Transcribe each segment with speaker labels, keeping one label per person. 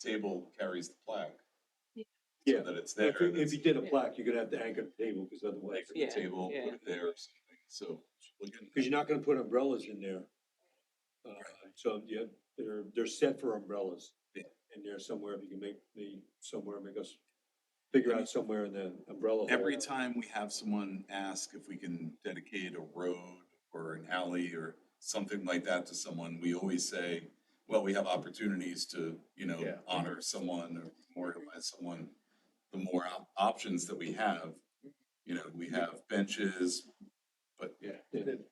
Speaker 1: table carries the plaque.
Speaker 2: Yeah.
Speaker 1: So
Speaker 3: Yeah.
Speaker 1: that it's there,
Speaker 3: If you,
Speaker 1: and
Speaker 3: if
Speaker 1: it's
Speaker 3: you did a
Speaker 2: Yeah.
Speaker 3: plaque, you're gonna have to anchor the table, because
Speaker 1: like
Speaker 3: otherwise,
Speaker 1: the
Speaker 2: Yeah,
Speaker 1: table,
Speaker 2: yeah.
Speaker 1: put it there or something, so. we'll get
Speaker 3: because you're not gonna put umbrellas in there. Uh, so, yeah, they're, they're set for umbrellas.
Speaker 1: Yeah.
Speaker 3: In there somewhere, if you can make the, somewhere, make us figure out somewhere in the umbrella.
Speaker 1: Every
Speaker 3: hall.
Speaker 1: time we have someone ask if we can dedicate a road or an alley or something like that to someone, we always say, well, we have opportunities to, you know,
Speaker 3: Yeah.
Speaker 1: honor someone or memorialize someone. The more op- options that we have, you know, we have benches, but
Speaker 3: Yeah. and then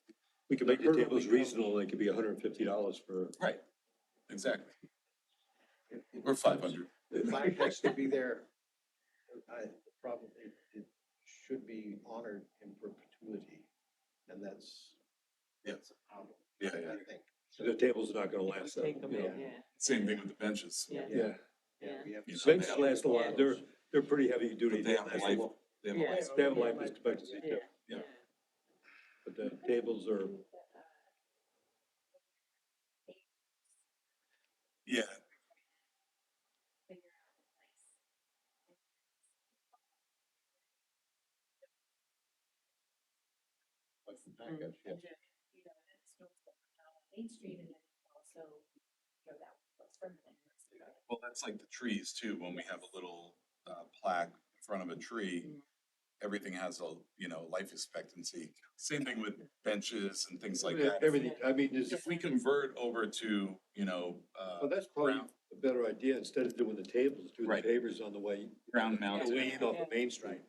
Speaker 3: We can make the tables reasonable, it could be hundred and fifty dollars for.
Speaker 1: Right, exactly. Or five hundred.
Speaker 4: The flag has to be there. I, the problem, it, it should be honored in perpetuity, and that's.
Speaker 1: Yeah.
Speaker 4: that's a problem,
Speaker 1: Yeah,
Speaker 4: I
Speaker 1: yeah.
Speaker 4: think.
Speaker 3: So the table's not gonna last that
Speaker 2: Take
Speaker 3: long.
Speaker 2: them
Speaker 3: you
Speaker 2: in,
Speaker 3: know.
Speaker 2: yeah,
Speaker 1: Same thing with the benches.
Speaker 2: yeah.
Speaker 3: Yeah,
Speaker 2: Yeah.
Speaker 4: we have to-
Speaker 1: You know, they
Speaker 3: benches
Speaker 1: have-
Speaker 3: last a
Speaker 2: Yeah.
Speaker 3: while, they're, they're pretty heavy duty.
Speaker 1: But they have a
Speaker 3: last a
Speaker 1: life-
Speaker 3: long-
Speaker 1: they have a
Speaker 2: Yeah.
Speaker 1: life-
Speaker 3: They have a life expectancy
Speaker 2: Yeah,
Speaker 3: too,
Speaker 1: Yeah.
Speaker 3: but the tables are,
Speaker 1: Yeah,
Speaker 2: Mm,
Speaker 5: And then, you know, and it's no fault down on Main Street and then also, you know, that was permanent.
Speaker 1: well, that's like the trees too, when we have a little uh plaque in front of a tree.
Speaker 2: Mm.
Speaker 1: Everything has a, you know, life expectancy, same thing with benches and things like
Speaker 3: Yeah,
Speaker 1: that.
Speaker 3: everything, I mean, there's.
Speaker 1: If we convert over to, you know, uh,
Speaker 3: Well, Oh, that's probably
Speaker 1: Brown.
Speaker 3: a better idea, instead of doing the tables, do the
Speaker 1: Right.
Speaker 3: pavers on the way,
Speaker 1: ground
Speaker 3: on
Speaker 1: mounted.
Speaker 3: the way in off of Main Street.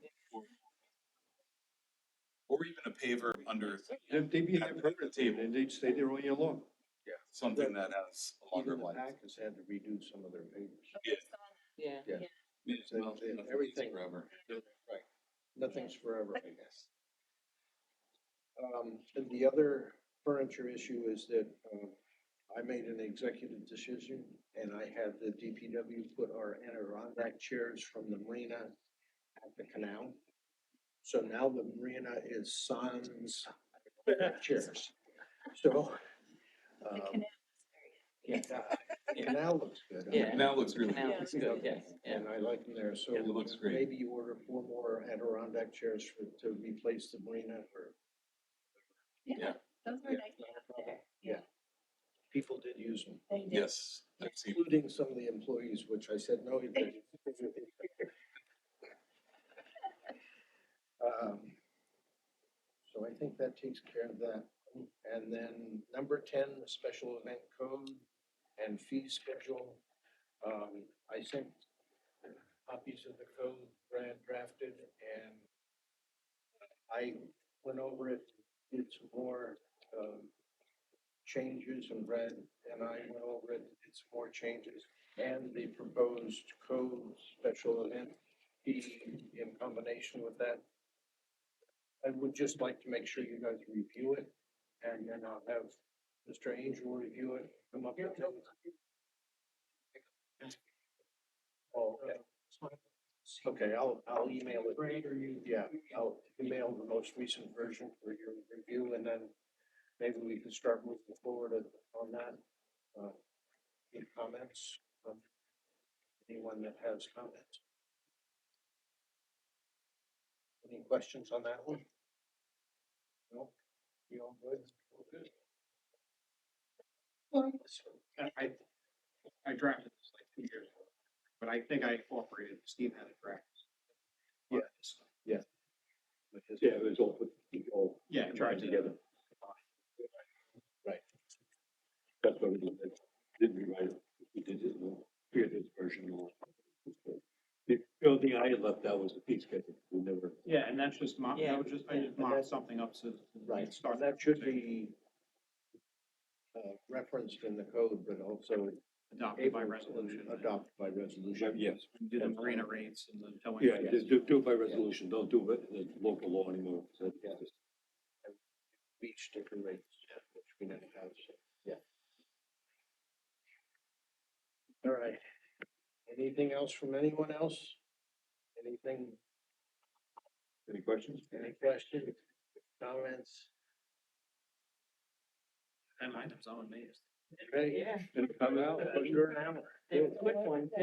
Speaker 1: Or even a paver under
Speaker 3: They'd they'd be in there permanently, and they'd stay there all year long.
Speaker 1: something that has a longer
Speaker 4: Even the
Speaker 1: life.
Speaker 4: pack has had to redo some of their papers.
Speaker 1: Yeah.
Speaker 2: Yeah,
Speaker 1: Yeah,
Speaker 4: So
Speaker 1: well,
Speaker 4: they-
Speaker 1: nothing's
Speaker 4: everything-
Speaker 1: Forever.
Speaker 4: Nothing's forever, I guess. Um, and the other furniture issue is that, um, I made an executive decision and I had the DPW put our Adirondack chairs from the marina at the canal. So now the marina is sans chairs. So,
Speaker 5: The
Speaker 4: um,
Speaker 5: canal is very,
Speaker 4: yeah, the canal looks good. I
Speaker 2: Yeah.
Speaker 4: mean,
Speaker 1: Now it looks really.
Speaker 2: now
Speaker 1: good.
Speaker 2: it's good, yes, yeah.
Speaker 4: and I like them there, so.
Speaker 1: Yeah, it looks great.
Speaker 4: Maybe you order four more Adirondack chairs for, to replace the marina or
Speaker 5: yeah, those were
Speaker 4: Yeah.
Speaker 5: nice out there.
Speaker 4: Yeah. people did use them,
Speaker 5: They did.
Speaker 1: Yes, I've seen,
Speaker 4: including some of the employees, which I said, no, you didn't. Um, So I think that takes care of that. And then number ten, the special event code and fee schedule. Um, I sent copies of the code Brad drafted and I went over it, did some more, um, changes and Brad and I went over it, did some more changes. And the proposed code special event fee in combination with that. I would just like to make sure you guys review it and then I'll have Mr. Angel review it, come up with things. Oh, okay. Okay, I'll, I'll email it. Yeah, I'll email the most recent version for your review and then maybe we can start moving forward on- on that. Uh, Any comments? Um, Anyone that has comments? Any questions on that one? No? You all good? Good.
Speaker 6: I, I- I drafted this like two years ago, but I think I incorporated, Steve had it correct.
Speaker 4: Yes, yes.
Speaker 3: Yeah, it was all put, all
Speaker 6: Yeah,
Speaker 3: tied
Speaker 6: charged it.
Speaker 3: together.
Speaker 4: Right.
Speaker 3: That's what we did, didn't rewrite it, we did it, we created this version. of it. The only thing I had left out was the fee schedule, we never.
Speaker 6: Yeah, and that's just mock,
Speaker 2: Yeah.
Speaker 6: that was just, I just mocked something up so.
Speaker 4: Right,
Speaker 6: Start.
Speaker 4: that should be uh, referenced in the code, but also
Speaker 6: Adopted by
Speaker 4: able
Speaker 6: resolution.
Speaker 4: to adopt by resolution.
Speaker 3: Yes,
Speaker 6: Do the marina rates and the towing.
Speaker 3: yeah, just do, do it by resolution, don't do it in the local law anymore, so, yeah, just-
Speaker 4: beach sticker rates, which we didn't have, so, yeah. All right, anything else from anyone else? Anything,
Speaker 3: any questions?
Speaker 4: any questions, comments?
Speaker 6: Ten items, I'm amazed.
Speaker 4: Ready?
Speaker 2: Yeah,
Speaker 3: Any comment out?
Speaker 4: Under an hour.
Speaker 2: they were quick ones.